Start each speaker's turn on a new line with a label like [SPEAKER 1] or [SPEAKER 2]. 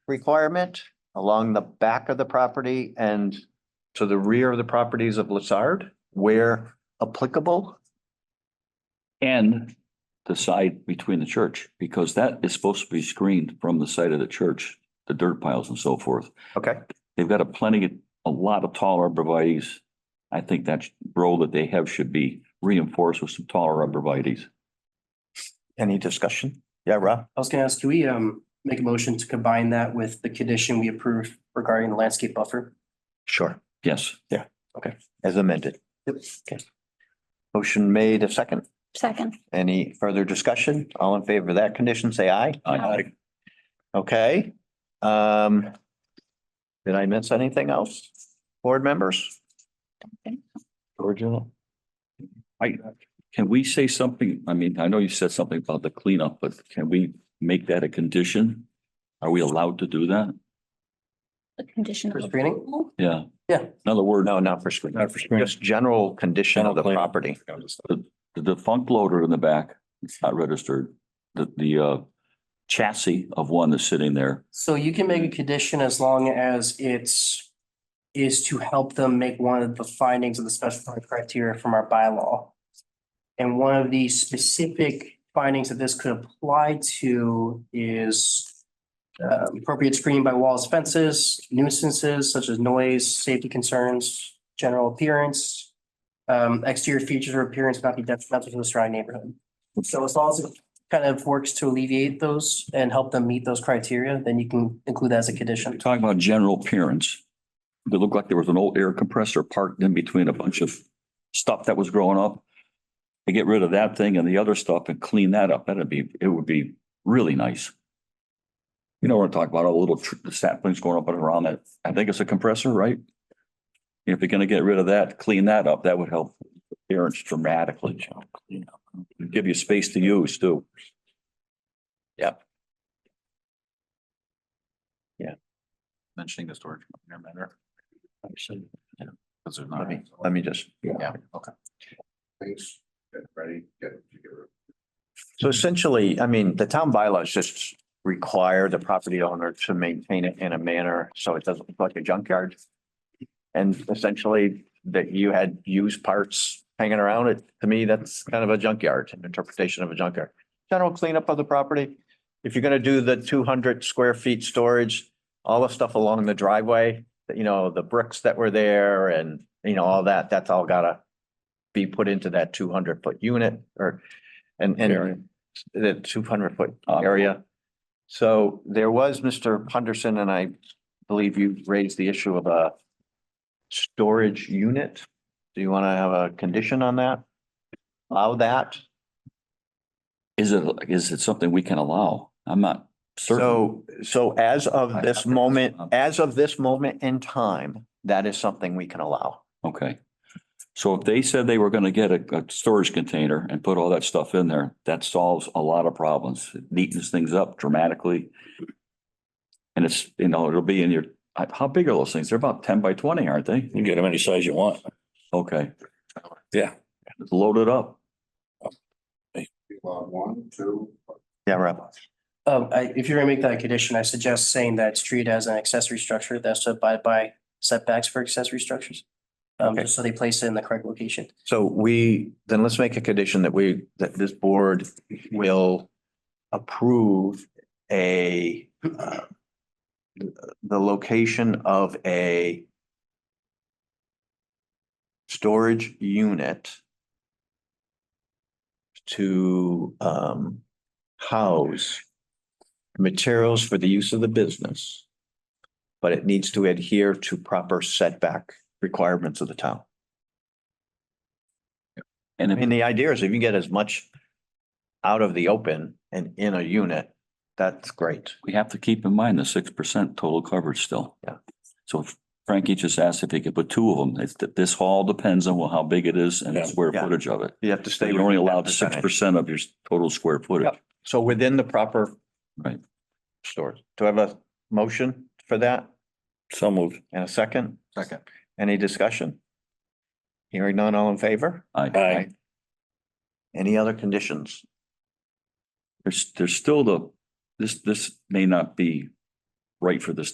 [SPEAKER 1] requirement along the back of the property and to the rear of the properties of Lazard where applicable.
[SPEAKER 2] And the side between the church, because that is supposed to be screened from the side of the church, the dirt piles and so forth.
[SPEAKER 1] Okay,
[SPEAKER 2] They've got a plenty, a lot of tall arborvitae's. I think that role that they have should be reinforced with some taller arborvitae's.
[SPEAKER 1] any discussion? Yeah, Rob?
[SPEAKER 3] I was gonna ask, do we um make a motion to combine that with the condition we approve regarding the landscape buffer?
[SPEAKER 1] Sure.
[SPEAKER 2] Yes,
[SPEAKER 1] As amended.
[SPEAKER 3] Okay.
[SPEAKER 1] Motion made a second.
[SPEAKER 4] Second.
[SPEAKER 1] Any further discussion? All in favor of that condition, say aye.
[SPEAKER 2] Aye.
[SPEAKER 1] Okay, um. Did I miss anything else? Board members?
[SPEAKER 2] Original. I, can we say something? I mean, I know you said something about the cleanup, but can we make that a condition? Are we allowed to do that?
[SPEAKER 4] The condition.
[SPEAKER 3] For
[SPEAKER 4] of
[SPEAKER 3] screening?
[SPEAKER 4] approval.
[SPEAKER 2] Yeah.
[SPEAKER 3] Yeah.
[SPEAKER 2] Another word,
[SPEAKER 1] No, not for screen.
[SPEAKER 5] Not for screen.
[SPEAKER 1] Just general condition of the
[SPEAKER 5] General plan.
[SPEAKER 1] property.
[SPEAKER 2] the defunct loader in the back, it's not registered. The, the, uh, chassis of one that's sitting there.
[SPEAKER 3] So you can make a condition as long as it's is to help them make one of the findings of the special permit criteria from our bylaw. And one of the specific findings that this could apply to is uh, appropriate screening by walls, fences, nuisances such as noise, safety concerns, general appearance. Um, exterior features or appearance not be detrimental to the surrounding neighborhood. So as long as it kind of works to alleviate those and help them meet those criteria, then you can include that as a
[SPEAKER 2] We're
[SPEAKER 3] condition.
[SPEAKER 2] talking about general appearance. It looked like there was an old air compressor parked in between a bunch of stuff that was growing up. To get rid of that thing and the other stuff and clean that up, that'd be, it would be really nice. You know, we're talking about all the little tr- the saplings going up and around that. I think it's a compressor, right? If you're gonna get rid of that, clean that up, that would help appearance dramatically. Give you space to use too.
[SPEAKER 5] mentioning the storage container matter. Because there's
[SPEAKER 1] Let
[SPEAKER 5] not.
[SPEAKER 1] me, let me just, yeah.
[SPEAKER 6] Thanks. Get ready, get, get rid of
[SPEAKER 1] So essentially, I mean, the town bylaws just require the property owner to maintain it in a manner so it doesn't look like a junkyard. And essentially that you had used parts hanging around it, to me, that's kind of a junkyard, an interpretation of a junkyard. General cleanup of the property. If you're gonna do the two hundred square feet storage, all the stuff along the driveway, that, you know, the bricks that were there and, you know, all that, that's all gotta be put into that two hundred foot unit or, and,
[SPEAKER 2] Area.
[SPEAKER 1] and the two hundred foot area. So there was Mr. Punderson, and I believe you raised the issue of a storage unit. Do you want to have a condition on that? Allow that?
[SPEAKER 2] Is it, is it something we can allow? I'm not certain.
[SPEAKER 1] So, so as of this moment, as of this moment in time, that is something we can allow.
[SPEAKER 2] Okay. So if they said they were gonna get a, a storage container and put all that stuff in there, that solves a lot of problems. It Neatens things up dramatically. And it's, you know, it'll be in your, I- how big are those things? They're about ten by twenty, aren't they?
[SPEAKER 7] You can get them any size you want.
[SPEAKER 2] Okay.
[SPEAKER 7] Yeah.
[SPEAKER 2] It's Loaded up.
[SPEAKER 6] it. Lot one, two,
[SPEAKER 1] Yeah, Rob.
[SPEAKER 3] Um, I, if you're gonna make that a condition, I suggest saying that it's treated as an accessory structure that's to abide by setbacks for accessory structures. Um,
[SPEAKER 1] Okay.
[SPEAKER 3] just so they place it in the correct location.
[SPEAKER 1] So we, then let's make a condition that we, that this board will approve a uh, the location of a storage unit to um house materials for the use of the business. But it needs to adhere to proper setback requirements of the town.
[SPEAKER 2] And
[SPEAKER 1] I mean,
[SPEAKER 2] if-
[SPEAKER 1] the idea is if you get as much out of the open and in a unit, that's great.
[SPEAKER 2] we have to keep in mind the six percent total coverage still.
[SPEAKER 1] Yeah.
[SPEAKER 2] So if Frankie just asked if he could put two of them. It's that this hall depends on how big it is and the
[SPEAKER 7] Yeah.
[SPEAKER 2] square
[SPEAKER 1] Yeah.
[SPEAKER 2] footage of it.
[SPEAKER 1] You have to stay.
[SPEAKER 2] You're only
[SPEAKER 1] within that
[SPEAKER 2] allowed six
[SPEAKER 1] percentage.
[SPEAKER 2] percent of your total square footage.
[SPEAKER 1] Yep. So within the proper
[SPEAKER 2] Right.
[SPEAKER 1] stores. Do I have a motion for that
[SPEAKER 7] So moved.
[SPEAKER 1] and a second?
[SPEAKER 5] Second.
[SPEAKER 1] Any discussion? Hearing none, all in favor?
[SPEAKER 2] Aye.
[SPEAKER 7] Aye.
[SPEAKER 1] Any other conditions?
[SPEAKER 2] There's, there's still the, this, this may not be right for this